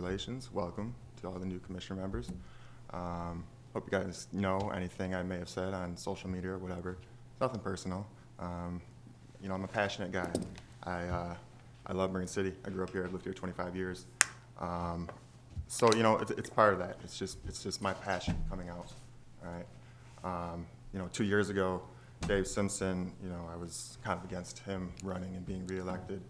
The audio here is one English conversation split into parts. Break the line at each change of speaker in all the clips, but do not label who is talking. Congratulations, welcome to all the new commissioner members. Um, Hope you guys know anything I may have said on social media or whatever, nothing personal. Um, You know, I'm a passionate guy. I, uh, I love Marine City, I grew up here, I've lived here 25 years. Um, So, you know, it's, it's part of that, it's just, it's just my passion coming out, all right? Um, You know, two years ago, Dave Simpson, you know, I was kind of against him running and being reelected.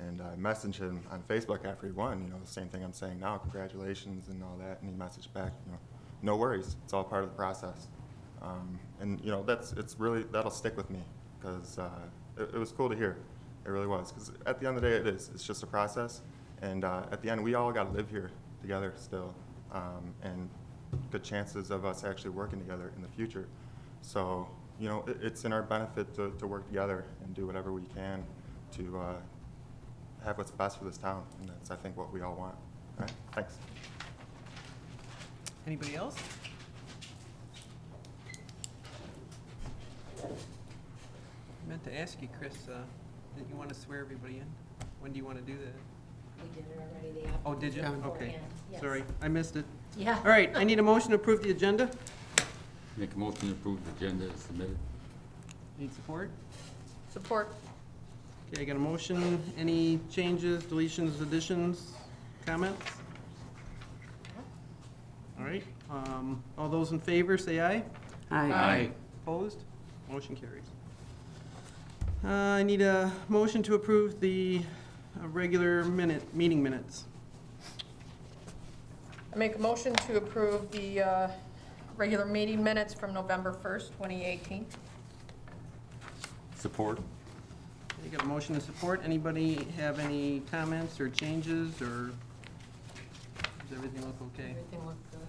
And I messaged him on Facebook after he won, you know, the same thing I'm saying now, congratulations and all that. And he messaged back, you know, no worries, it's all part of the process. Um, and, you know, that's, it's really, that'll stick with me because uh, it, it was cool to hear. It really was. Because at the end of the day, it is, it's just a process. And uh, at the end, we all got to live here together still. Um, and good chances of us actually working together in the future. So, you know, it, it's in our benefit to, to work together and do whatever we can to uh, have what's best for this town, and that's, I think, what we all want. All right, thanks.
Anybody else? I meant to ask you, Chris, uh, didn't you want to swear everybody in? When do you want to do that?
We did it already, the applicant.
Oh, did you? Okay.
beforehand, yes.
Sorry, I missed it.
Yeah.
All right, I need a motion to approve the agenda.
Make a motion to approve the agenda as submitted.
Need support?
Support.
Okay, I got a motion. Any changes, deletions, additions, comments? All right, um, all those in favor, say aye.
Aye.
Opposed? Motion carries. Uh, I need a motion to approve the uh, regular minute, meeting minutes.
I make a motion to approve the uh, regular meeting minutes from November 1st, 2018.
Support?
You got a motion to support. Anybody have any comments or changes, or does everything look okay?
Everything looked good.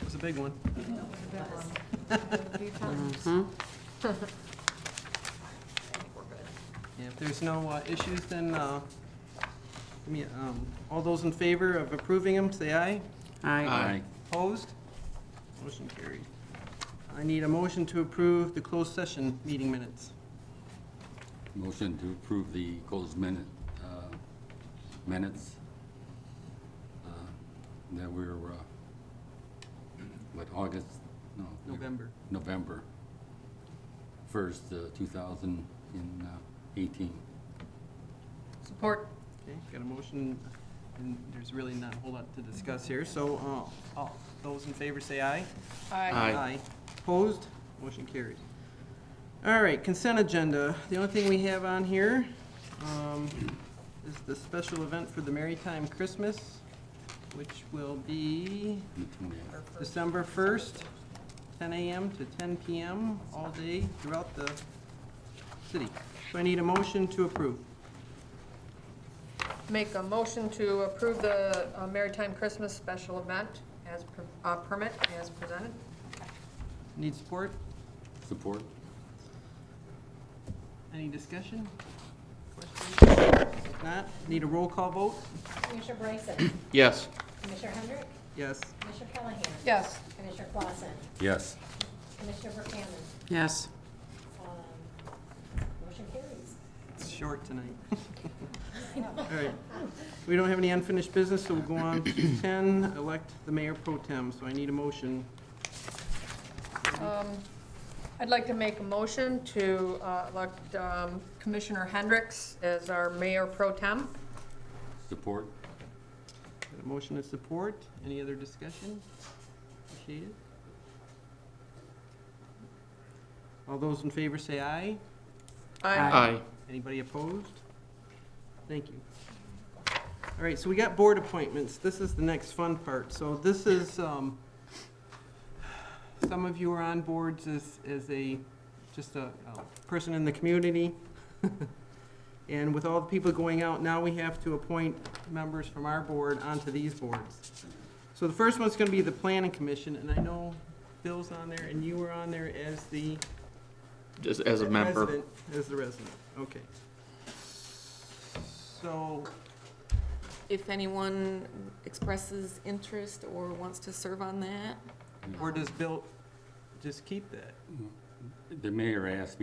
It was a big one.
I looked at it A few times.
I think we're good.
Yeah, If there's no uh, issues, then, uh, give me, um, all those in favor of approving them, say aye.
Aye.
Opposed? Motion carried. I need a motion to approve the closed session meeting minutes.
Motion to approve the closed minute, uh, minutes uh, that we're, uh, what, August? No. we-
November.
November 1st, uh, 2018.
Support.
Okay, got a motion, and there's really not a whole lot to discuss here, so, uh, all, those in favor say aye.
Aye.
Opposed? Motion carried. All right, consent agenda. The only thing we have on here, um, is the special event for the Maritime Christmas, which will be
the 20th.
December 1st, 10 a.m. to 10 p.m. all day throughout the city. So I need a motion to approve.
Make a motion to approve the uh, Maritime Christmas special event as, per- uh, permit as presented.
Need support?
Support?
Any discussion? Questions? If Not? Need a roll call vote?
Commissioner Bryson?
Yes.
Commissioner Hendrick?
Yes.
Commissioner Callahan?
Yes.
Commissioner Clausen?
Yes.
Commissioner Buchanan?
Yes.
Um, Motion carries.
It's short tonight. All right. We don't have any unfinished business, so we'll go on to 10, elect the mayor pro tem. So I need a motion.
Um, I'd like to make a motion to uh, elect um, Commissioner Hendricks as our mayor pro tem.
Support?
Got a motion of support. Any other discussion? Appreciate it. All those in favor say aye.
Aye.
Anybody opposed? Thank you. All right, so we got board appointments. This is the next fun part. So this is, um, some of you are on boards as, as a, just a, a person in the community. And with all the people going out, now we have to appoint members from our board onto these boards. So the first one's gonna be the planning commission, and I know Bill's on there and you were on there as the
Just as a member.
Resident, As the resident, okay. So,
if anyone expresses interest or wants to serve on that.
or does Bill just keep that?
the mayor asked me